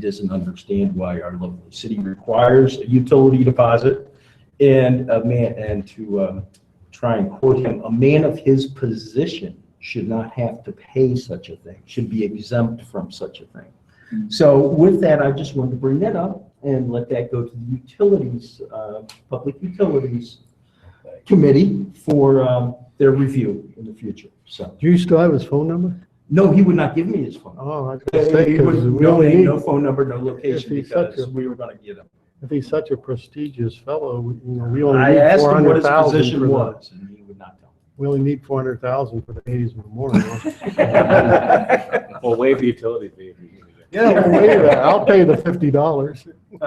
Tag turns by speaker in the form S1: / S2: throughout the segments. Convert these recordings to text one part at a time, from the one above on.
S1: doesn't understand why our local city requires a utility deposit and a man, and to um, try and quote him, a man of his position should not have to pay such a thing, should be exempt from such a thing. So with that, I just wanted to bring that up and let that go to the utilities, uh, Public Utilities Committee for um, their review in the future, so.
S2: Do you still have his phone number?
S1: No, he would not give me his phone.
S2: Oh, I was
S1: He
S2: gonna say,
S1: would-
S2: because we
S1: No
S2: only
S1: name,
S2: need,
S1: no phone number, no location,
S2: If he's such
S1: because
S2: a-
S1: we were gonna get him.
S2: if he's such a prestigious fellow, we- you know, we only
S1: I
S2: need
S1: asked
S2: four
S1: him what
S2: hundred
S1: his
S2: thousand for
S1: position
S2: the,
S1: was, and he would not tell
S2: we only need four hundred thousand for the eighties memorial.
S1: me.
S3: Well, waive the utility fee.
S2: Yeah, well, wait a minute, I'll pay the fifty dollars.
S4: Should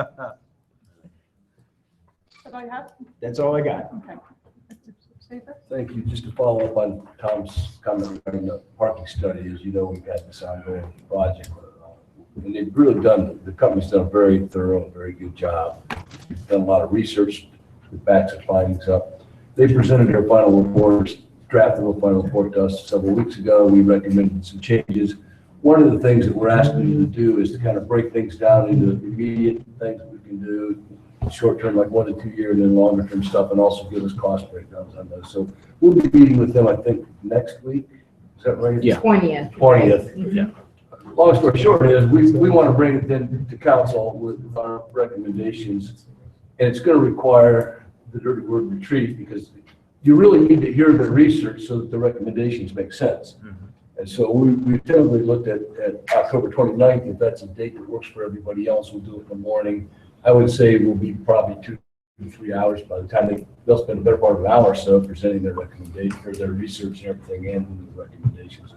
S4: I have?
S1: That's all I got.
S4: Okay. Stephen?
S5: Thank you. Just to follow up on Tom's comment regarding the parking study, as you know, we've had this ongoing project. And they've really done, the company's done a very thorough, very good job. Done a lot of research, that backs the findings up. They presented their final reports, drafted a final report to us several weeks ago. We recommended some changes. One of the things that we're asking you to do is to kind of break things down into immediate things we can do, short-term, like one to two year, and then longer-term stuff, and also give us cost breakdowns on those. So We'll be meeting with them, I think, next week. Is that right?
S1: Yeah.
S6: Twentieth.
S5: 20th.
S7: Mm-hmm.
S1: Yeah.
S5: Long story short is, we, we want to bring it then to council with our recommendations. And it's going to require the dirty word retreat because you really need to hear the research so that the recommendations make sense. And so we, we typically looked at, at October 29th, if that's a date that works for everybody else, we'll do it in the morning. I would say we'll be probably two, to three hours by the time they, they'll spend a better part of an hour or so presenting their recommendation, or their research and everything and the recommendations.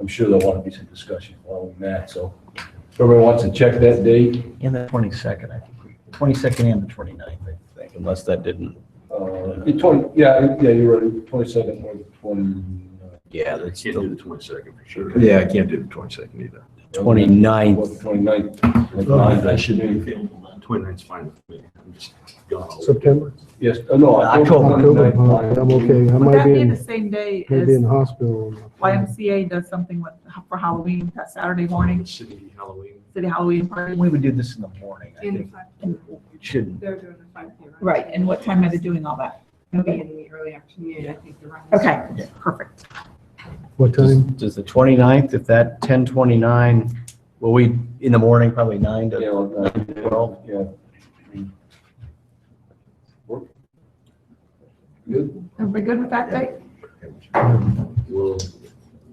S5: I'm sure there'll want to be some discussion following that, so if everyone wants to check that date,
S8: And the 22nd, I think, 22nd and the 29th, I think, unless that didn't,
S5: uh, the twenty, yeah, yeah, you're right, twenty-second or the twenty.
S8: yeah, that's
S3: Can't do
S8: the
S3: the twenty-second for sure.
S1: Yeah, I can't do the twenty-second either.
S8: 29th.
S5: Twenty-ninth.
S1: Oh, I shouldn't
S3: Twenty-nine's fine with me. I'm just gone. all over.
S2: September,
S5: Yes, uh, no.
S2: October,
S5: 29th.
S2: uh, I'm okay, I
S4: Would
S2: might
S4: that
S2: be
S4: be the
S2: in,
S4: same day
S2: maybe in
S4: as
S2: the hospital.
S4: YMCA does something with, for Halloween, that Saturday morning,
S3: City Halloween.
S4: city Halloween party?
S8: We would do this in the morning, I think. It shouldn't.
S7: They're doing a five K.
S4: Right, and what time are they doing all that?
S7: Maybe
S4: Okay,
S7: in the early afternoon, I think the run.
S4: okay, perfect.
S2: What time?
S8: Does the 29th, if that 10:29, well, we, in the morning, probably 9
S5: Yeah,
S8: to
S5: like that.
S8: 12?
S5: Yeah. Work? Good?
S4: Everybody good with that date?
S3: Well.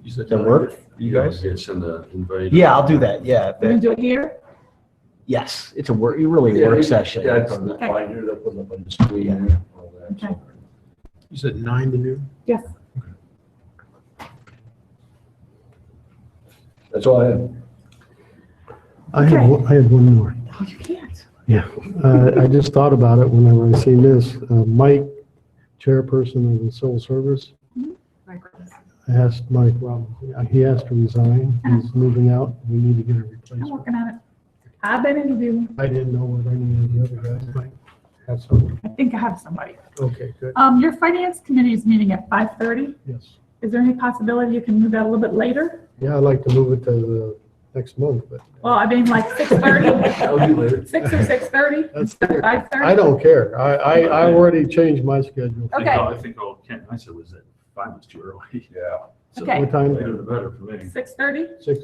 S3: you said-
S8: That work, you guys?
S3: Yeah, send a invite.
S8: Yeah, I'll do that, yeah.
S4: We're gonna
S8: that-
S4: do it here?
S8: Yes, it's a work, really a
S5: Yeah,
S8: work session.
S5: Yeah, it's on the
S4: Okay.
S5: binder, they'll put it up on the screen and all that. so.
S4: Okay.
S3: You said nine to noon?
S4: Yes.
S5: That's all I have.
S2: I had,
S4: Okay.
S2: one- I had one more.
S4: Oh, you can't.
S2: Uh, I just thought about it whenever I seen this. Uh, Mike, chairperson of the civil service, asked Mike Robinson, uh, he asked to resign. He's moving out. We need to get a
S4: I'm
S2: replacement.
S4: working on it. I've been interviewing,
S2: I didn't know what any of the other guys might have something.
S4: I think I have somebody.
S2: Okay, good.
S4: Um, your finance committee is meeting at five thirty.
S2: Yes.
S4: Is there any possibility you can move that a little bit later?
S2: Yeah, I'd like to move it to the next month, but
S4: Well, I mean, like six thirty,
S5: I'll do later.
S4: six or six thirty,
S2: that's,
S4: five thirty?
S2: I don't care. I, I, I already changed my
S3: I
S2: schedule.
S3: think
S4: Okay.
S3: all- I think all Ken and I said was that five was too early.
S5: Yeah.
S3: So
S4: Okay.
S2: What time?
S3: Later the better for me.
S4: Six thirty,
S2: Six,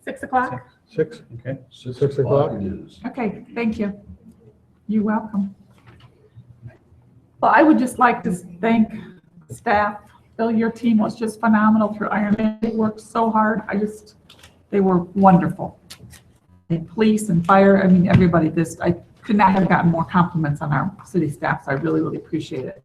S4: six o'clock?
S2: six?
S8: Okay.
S2: Six o'clock?
S5: It is.
S4: Okay, thank you. You're welcome. Well, I would just like to thank staff. Bill, your team was just phenomenal through Iron Man. They worked so hard. I just, they were wonderful. And police and fire, I mean, everybody, this, I could not have gotten more compliments on our city staff, so I really, really appreciate it.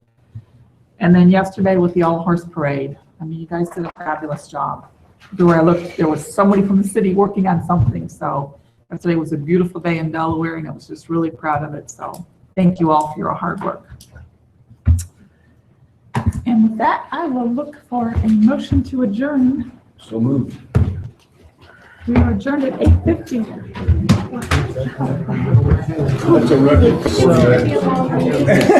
S4: And then yesterday with the All Horse Parade, I mean, you guys did a fabulous job. Everywhere I looked, there was somebody from the city working on something, so Yesterday was a beautiful day in Delaware, and I was just really proud of it, so thank you all for your hard work. And with that, I will look for a motion to adjourn.
S5: So moved.
S4: We are adjourned at 8:50.
S5: That's a record.